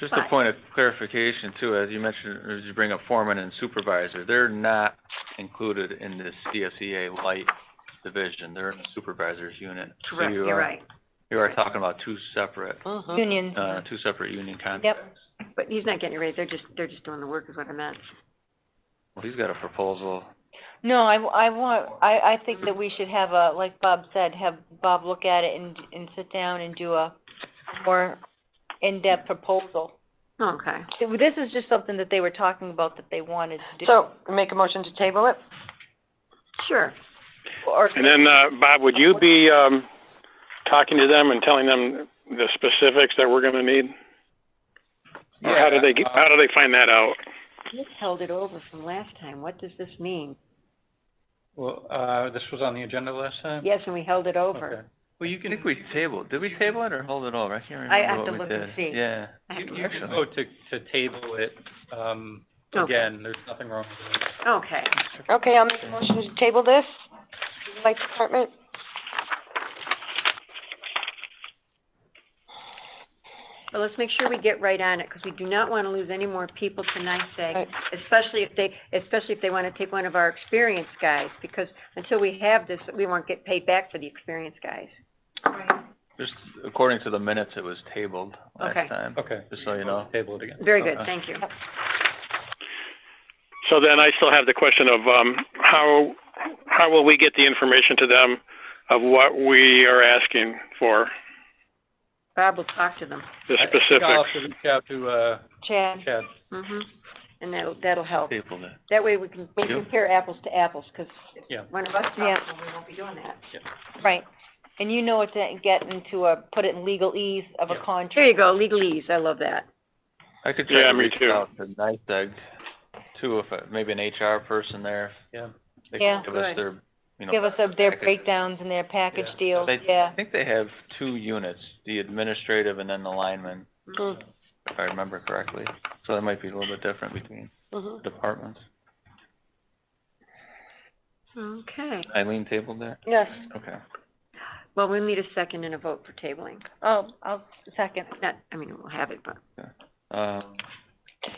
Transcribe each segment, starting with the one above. Just a But- point of clarification too, as you mentioned, as you bring up foreman and supervisor, they're not included in this CSEA light division. They're in the supervisor's unit. So Correct, you uh, You're are- right, You are talking about two separate, Mm-hmm. Uh-huh. Union. uh, two separate union contracts. but he's not getting a raise, they're just, they're just doing the work is what I meant. Well, he's got a proposal. No, I, I want, I, I think that we should have a, like Bob said, have Bob look at it and, and sit down and do a more in-depth proposal. Oh, Okay, This is just something that they were talking about that they wanted to do. So, make a motion to table it? sure, Or, And then, uh, Bob, would you be, um, talking to them and telling them the specifics that we're gonna need? Or how do they, get- how do they find that out? Nick held it over from last time, what does this mean? Well, uh, this was on the agenda last time? Yes, and we held it Okay. over. Well, you I can, think we tabled, did we table it or hold it over? I can't I have remember to what we look and did. see. Yeah. I have you to you look. can vote to, to table it, um, Okay. again, there's nothing wrong with it. Okay, Okay, I'll make a motion to table this, to the light department. well, let's make sure we get right on it, because we do not want to lose any more people to NICEAG, Right. especially if they, especially if they want to take one of our experienced guys, because until we have this, we won't get paid back for the experienced guys. Just according to the minutes, it was tabled Okay. last time, Okay. just so you know. Table it again. Very good, Okay. thank you. So then I still have the question of, um, how, how will we get the information to them of what we are asking for, Bob will talk to them. the I think I'll specifics? have to reach out to, uh, Chad, Chad. hmm And that'll, that'll help. Tabled it. That way we can, we Yeah. can compare apples to apples, because Yeah. one of us talks, Yeah. and we won't be doing that. right, and you know what to get into a, put it in legal ease of a Yeah. contract. There you go, legalese, I love that. I could try Yeah, to me reach too. out to NYSEG too, if, I- maybe an HR person there. Yeah. They Yeah. can give us Good. their, you know. Give us a- their package. breakdowns and their package Yeah. deals, They- yeah. I think they have two units, the administrative and then the lineman, Mm, if I remember correctly. So that might be a little bit different between mhm. departments. Okay, Eileen tabled that? Yes, Okay. well, we'll need a second and a vote for tabling. Oh, I'll second. Not, I mean, we'll have it, but, Um,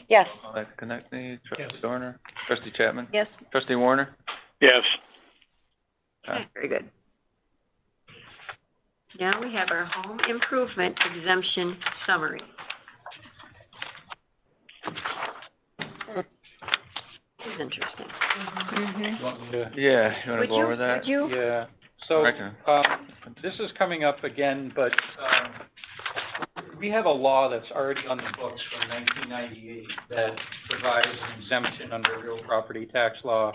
Yes, that Connectney, trustee Yes. Dorner, trustee Chapman, yes. trustee Warner? Yes. Okay. very good. Now we have our home improvement exemption summary. This is interesting. Mm-hmm. You want me to- Yeah, you wanna Would go you, over that? would you, Yeah, so, Okay. um, this is coming up again, but, um, we have a law that's already on the books from nineteen ninety-eight that provides an exemption under real property tax law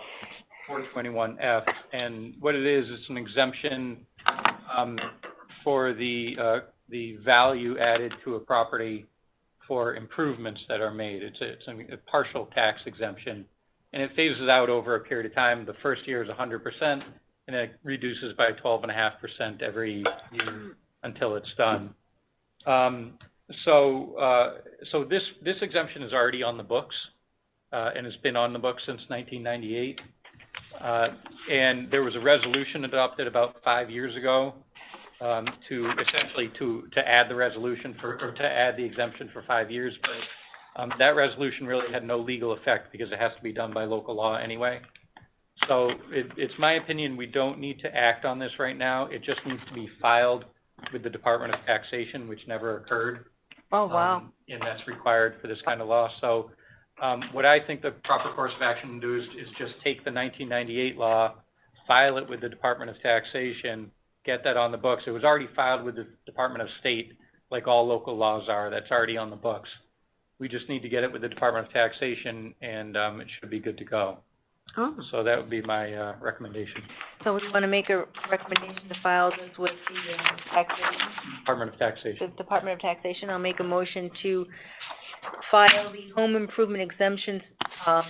four twenty-one F. And what it is, it's an exemption, um, for the, uh, the value added to a property for improvements that are made. It's a, it's a- a partial tax exemption. And it phases out over a period of time. The first year is hundred percent, and it reduces by twelve and a half percent every year until it's done. Um, so, uh, so this, this exemption is already on the books, uh, and has been on the books since nineteen ninety-eight. Uh, and there was a resolution adopted about five years ago, um, to essentially to, to add the resolution for, or to add the exemption for five years. But, um, that resolution really had no legal effect because it has to be done by local law anyway. So it, it's my opinion, we don't need to act on this right now. It just needs to be filed with the Department of Taxation, which never occurred. Oh, wow. um, And that's required for this kind of law. So, um, what I think the proper course of action to do is, is just take the nineteen ninety-eight law, file it with the Department of Taxation, get that on the books. It was already filed with the Department of State, like all local laws are. That's already on the books. We just need to get it with the Department of Taxation and, um, it should be good to go. oh, So that would be my, uh, recommendation, So we want to make a recommendation to file this with the, um, taxation, Department of Taxation. the Department of Taxation. I'll make a motion to file the home improvement exemptions, um,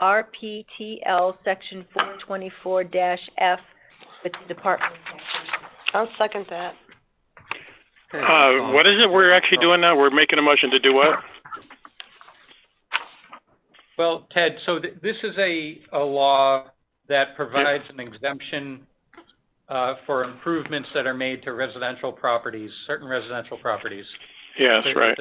RPTL Section four twenty-four F with the Department of Taxation. I'll second that. Okay, Uh, um, what is it we're actually doing now? We're making a motion to do what? Well, Ted, so th- this is a, a law that provides an exemption, uh, for improvements that are made to residential properties, certain residential properties. Yeah, that's that- right.